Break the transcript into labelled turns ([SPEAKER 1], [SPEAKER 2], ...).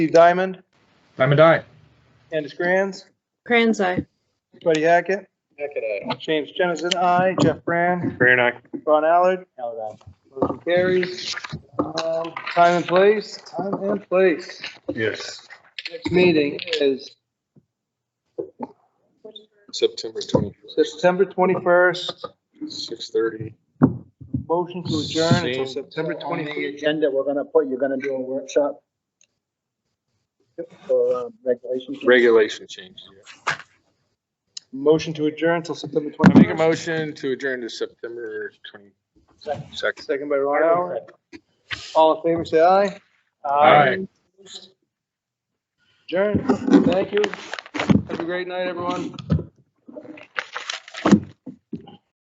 [SPEAKER 1] Steve Diamond,
[SPEAKER 2] Diamond Eye.
[SPEAKER 1] Candace Granz,
[SPEAKER 3] Kranzai.
[SPEAKER 1] Buddy Hackett,
[SPEAKER 4] Hackett, aye.
[SPEAKER 1] James Jensen, I, Jeff Brand,
[SPEAKER 4] Brand, aye.
[SPEAKER 1] Ron Allard. Allard, Motion carries. Um, Time and place, time and place.
[SPEAKER 4] Yes.
[SPEAKER 1] Next meeting is
[SPEAKER 4] September twenty-first,
[SPEAKER 1] September 21st.
[SPEAKER 4] six thirty.
[SPEAKER 1] Motion to adjourn until
[SPEAKER 4] Same.
[SPEAKER 1] September
[SPEAKER 5] On the
[SPEAKER 1] 21st.
[SPEAKER 5] agenda, we're gonna put, you're gonna do a workshop for um, regulations.
[SPEAKER 4] Regulation change.
[SPEAKER 1] Motion to adjourn till September
[SPEAKER 4] I make a
[SPEAKER 1] 21st.
[SPEAKER 4] motion to adjourn to September twenty-second.
[SPEAKER 1] Second by Ron Allard. All in favor, say aye.
[SPEAKER 4] Aye.
[SPEAKER 1] Adjourn. Thank you. Have a great night, everyone.